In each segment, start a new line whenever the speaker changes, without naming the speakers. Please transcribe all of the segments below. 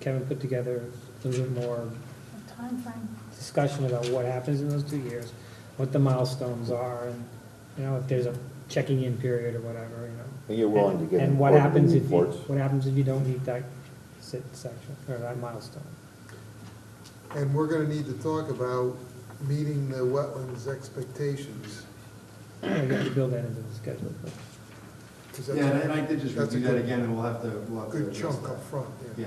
Kevin put together a little bit more
Timeframe.
discussion about what happens in those two years, what the milestones are, and, you know, if there's a checking in period or whatever, you know.
And you're willing to give
And
them
what happens
quarterly
if you,
reports?
what happens if you don't meet that sit section, or that milestone?
And we're gonna need to talk about meeting the wetlands expectations.
You have to build that into the schedule, but,
'cause that's
Yeah, and I did just
That's a
review that
good-
again, and we'll have to, we'll
a
have to.
Good
address
chunk
that.
up front, yeah.
Yeah.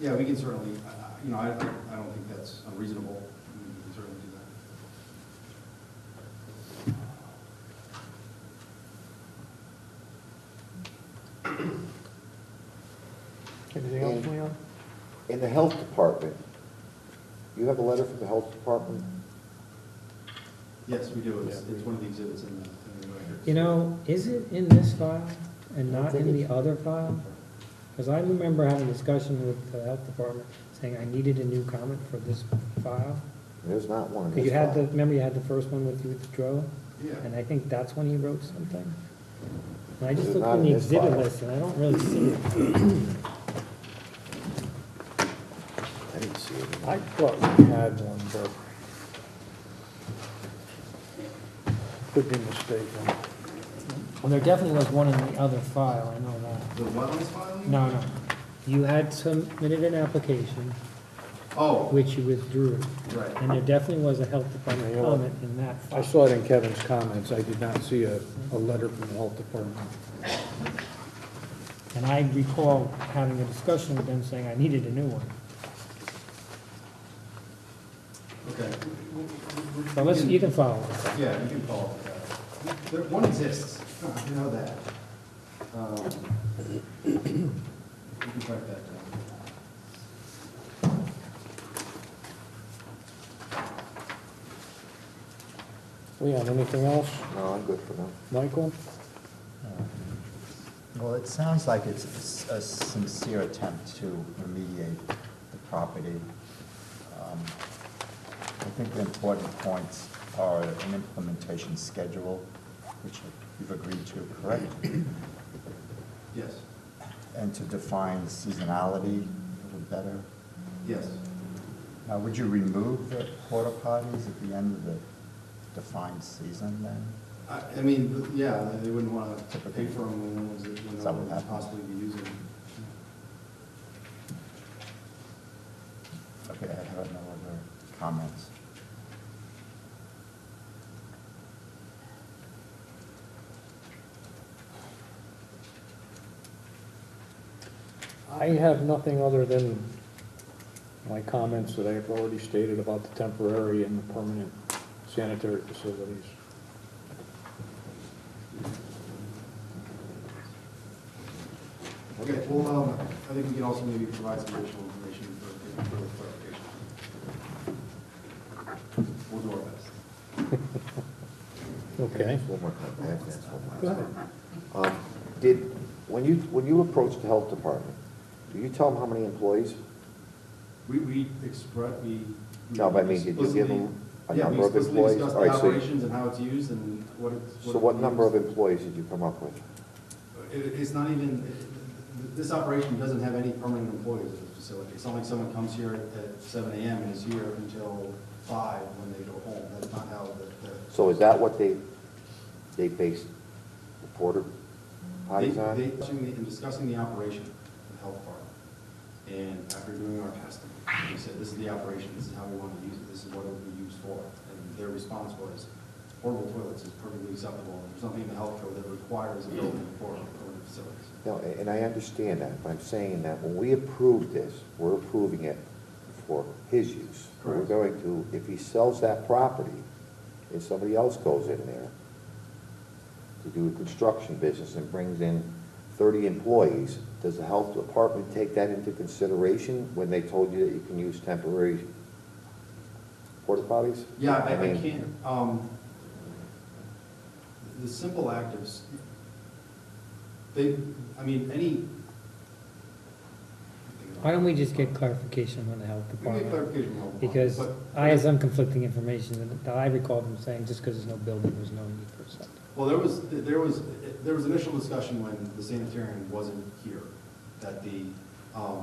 Yeah, we can certainly, I- I- you know, I, I- I don't think that's unreasonable. We can certainly do that.
anything else, Leon?
In the health department, you have a letter from the health department?
Yes, we do. It's, it's one of the exhibits in the, in the record.
You know, is it in this file and not in the other file? Because I remember having a discussion with the health department, saying I needed a new comment for this file.
There's not one in
Because
this
you had the,
file.
remember you had the first one with you with the drill?
Yeah.
And I think that's when he wrote something. And I just
It's
looked
not
in the
in this
exhibit
file.
list, and I don't really see it.
I didn't see it.
I thought we had one, but could be mistaken.
Well, there definitely was one in the other file, I know that.
The wetlands filing?
No, no. You had submitted an application,
Oh,
which you withdrew,
right.
and there definitely was a health department
Yeah.
comment in that
I
file.
saw it in Kevin's comments. I did not see a, a letter from the health department.
And I recall having a discussion with them saying I needed a new one.
Okay.
So let's, you can follow us.
Yeah, you can follow up with that. There, one exists, you know that. Um, You can track that down.
Leon, anything else?
No, I'm good for now.
Michael?
Uh, Well, it sounds like it's a s- a sincere attempt to remediate the property. Um, I think the important points are an implementation schedule, which you've agreed to, correct?
Yes,
And to define seasonality a little better.
yes.
Now, would you remove the porta potties at the end of the defined season then?
I, I mean, yeah, they wouldn't wanna pay for them when ones that,
Is that what
when
happened?
possibly be using. them.
Okay, I have no other comments.
I have nothing other than my comments that I have already stated about the temporary and the permanent sanitary facilities.
Okay, well, um, I think we can also maybe provide some additional information for, for clarification. We'll do our best.
Okay.
One more time, I have to ask one last thing. Um, Did, when you, when you approached the health department, do you tell them how many employees?
We, we express, we. we
No, but I mean, did you give them a
explicitly- yeah, we
number of
explicitly
employees?
discussed
All right,
the
so-
operations and how it's used and what it's.
So what
it
number of
means.
employees did you come up with?
It, it's not even, it- this operation doesn't have any permanent employees at the facility. It's not like someone comes here at seven AM and is here until five when they go home. That's not how the, the.
So is that what they, they based the porter
They-
potties
They,
on?
discussing the- in discussing the operation, the health part, and after doing our testing, we said, this is the operation, this is how we want to use it, this is what it would be used for. And their response was, portable toilets is perfectly acceptable, there's nothing in the health code that requires a building for portable facilities.
No, a- and I understand that, but I'm saying that when we approve this, we're approving it for his use. We're
Correct.
going to, if he sells that property, and somebody else goes in there to do a construction business and brings in thirty employees, does the health department take that into consideration when they told you that you can use temporary porta potties?
Yeah, I, I
mean,
can't, um, the simple act of, s- they, I mean, any.
Why don't we just get clarification on the health
We can get
department?
clarification on that,
Because
but-
I had some conflicting information, and I recall them saying just because there's no building, there's no need for something.
Well, there was, there was, there was initial discussion when the sanitarium wasn't here, that the Um,